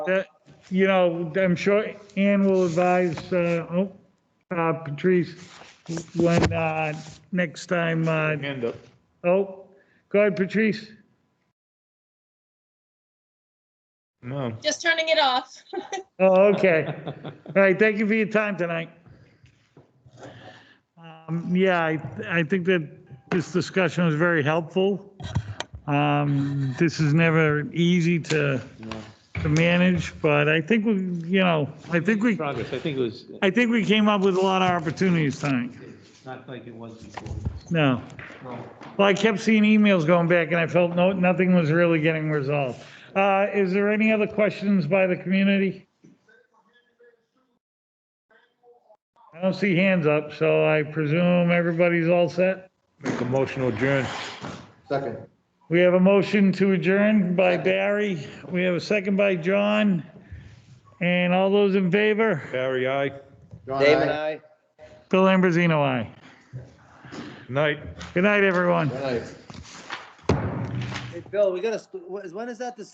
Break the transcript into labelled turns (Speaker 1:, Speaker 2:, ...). Speaker 1: that, Uh, you know, I'm sure Ann will advise, uh, oh, uh, Patrice, when, uh, next time, uh,
Speaker 2: Hand up.
Speaker 1: oh, go ahead, Patrice.
Speaker 2: No.
Speaker 3: Just turning it off.
Speaker 1: Oh, okay. All right, thank you for your time tonight. Um, Yeah, I, I think that this discussion was very helpful. Um, This is never easy to, to manage, but I think we, you know, I think we,
Speaker 4: progress. I think it was,
Speaker 1: I think we came up with a lot of opportunities tonight.
Speaker 4: it's not like it was before.
Speaker 1: No. Well, I kept seeing emails going back and I felt no, nothing was really getting resolved. Uh, is there any other questions by the community? I don't see hands up, so I presume everybody's all set.
Speaker 2: Make a motion to adjourn.
Speaker 5: Second.
Speaker 1: We have a motion to adjourn by Barry. We have a second by John. And all those in favor?
Speaker 2: Barry, aye.
Speaker 5: John,
Speaker 6: Dave and
Speaker 5: aye.
Speaker 6: I.
Speaker 1: Bill Ambrosino, aye.
Speaker 2: Night.
Speaker 1: Good night, everyone.
Speaker 5: Good night.
Speaker 6: Hey, Bill, we gotta, sp- wh- when is that the